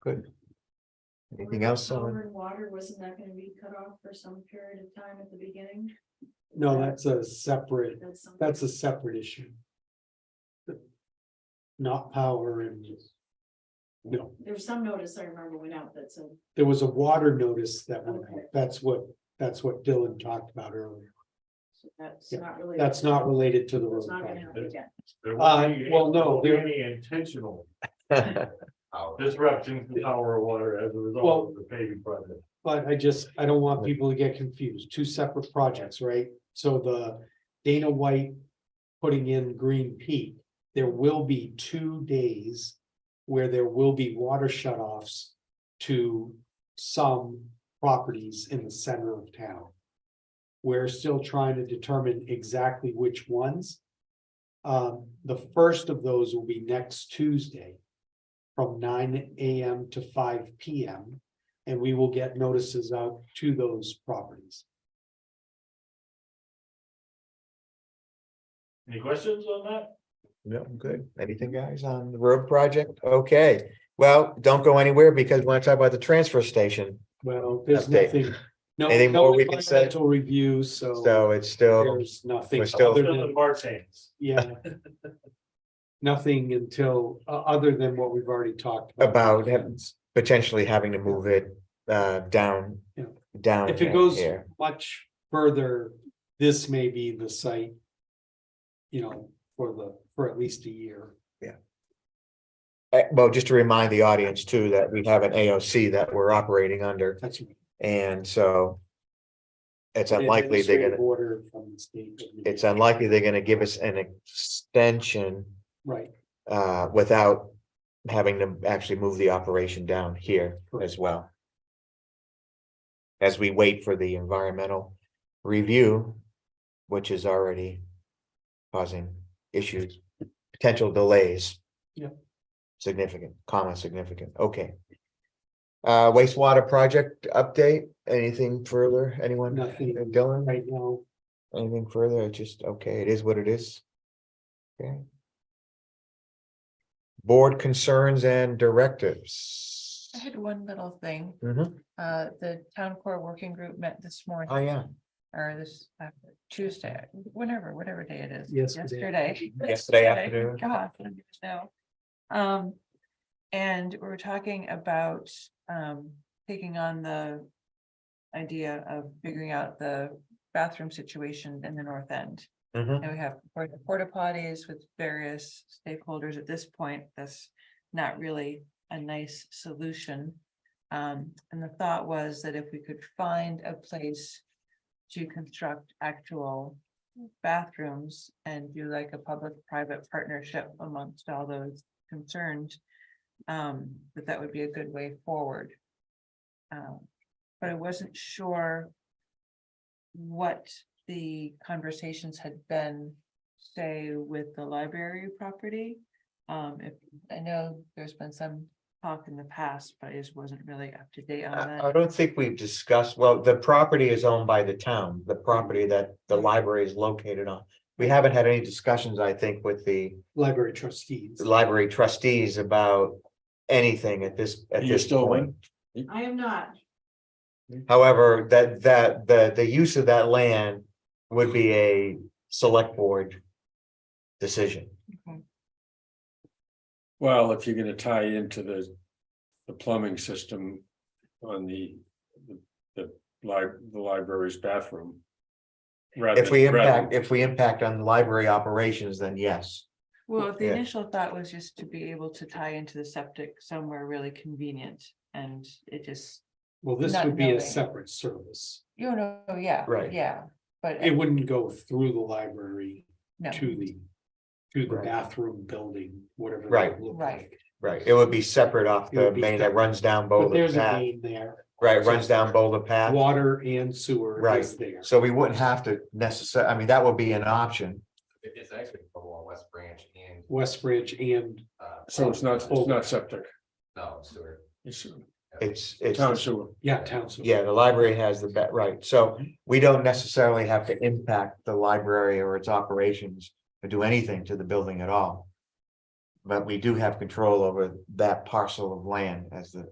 Good. Anything else Power on, and water, wasn't that gonna be cut off for some period of time at the beginning? No, that's a separate, That's something- that's a separate issue. Not power and. No, There was some notice I remember went out that said, there was a water notice that went Okay. out. That's what, that's what Dylan talked about earlier. so that's Yeah, not really. That's not related to the It's road. not gonna project. happen again. There Uh, won't be well, no, any- there- Any intentional that? disruption to power or water as a Well- result of the paving project. But I just, I don't want people to get confused. Two separate projects, right? So the Dana White putting in Green Peak, there will be two days where there will be water shutoffs to some properties in the center of town. We're still trying to determine exactly which ones. Um, the first of those will be next Tuesday from nine AM to five PM. And we will get notices out to those properties. Any questions on that? No, good. Anything, guys, on the road project? Okay, well, don't go anywhere because we want to talk about the transfer station. Well, there's Update. nothing. no- Anything no more we can say? environmental Review, so So it's still, there's nothing we're still- other Still in than, March hands. yeah. Nothing until, o- other than what we've already talked. About him. potentially having to move it uh down, Yeah. down. If it goes here. much further, this may be the site. You know, for the, for at least a year. Uh, Well, just to remind the audience too, that we have an AOC that we're operating under, That's. an and so. It's unlikely they're administrative gonna, Order from the state. it's unlikely they're gonna give us an extension Right, uh without. Having to actually move the operation down here as well. As we wait for the environmental review, which is already causing issues, potential delays. Yeah. Significant, comma, significant, okay. Uh, wastewater project update, anything further, anyone? Nothing. Dylan? right now. Anything further, it's just, okay, it is what it is. Okay. Board concerns and directives. I had one little thing. Mhm. Uh, the town core working group met this Oh, morning yeah, or this after- Tuesday, whenever, whatever day it is. Yesterday. Mm-hmm. Yesterday. Yesterday afternoon. God, I don't even know. Um, and we we're talking about, um, taking on the idea of figuring out the bathroom situation in the north end. Mhm. And we have porta- porta potties with various stakeholders at this point. That's not really a nice solution. Um, and the thought was that if we could find a place to construct actual bathrooms and do like a public-private partnership amongst all those concerned, um, that that would be a good way forward. Um, but I wasn't sure what the conversations had been, say, with the library property. Um, if, I know there's been some talk in the past, but I just wasn't really up to date on I I that. don't think we've discussed, well, the property is owned by the town, the property that the library is located on. We haven't had any discussions, I think, with the Library trustees. library trustees about anything at this, at You're this still point. waiting? I am not, However, that, that, the, the use of that land would be a select board decision. Well, if you're gonna tie into the, the plumbing system on the, the, the lib- the library's bathroom. rather If we than- rather impact, if we impact on library operations, then yes. Well, if the Yeah. initial thought was just to be able to tie into the septic somewhere really convenient and it just, Well, this Not would be a knowing. separate service. you know, yeah. Right. Yeah, but. uh, It wouldn't go through the library No. to the, to the Right. bathroom building, whatever. that Right. looked Right. like. Right, it would be separate off It the would be main that separate. runs down But Boulder there's a Oh, Path, main there, right, runs down Boulder Path. water and sewer is there. So we wouldn't have to necessarily. I mean, that would be an option. It- It's actually for Wall West Branch and. West Bridge and, uh, So it's not, it's not septic, No, sewer. it's It's, it's, Oh, town sewer. yeah, town. sewer. yeah, the library has the, ba- right, so we don't necessarily have to impact the library or its operations or do anything to the building at all. But we do have control over that parcel of land as the,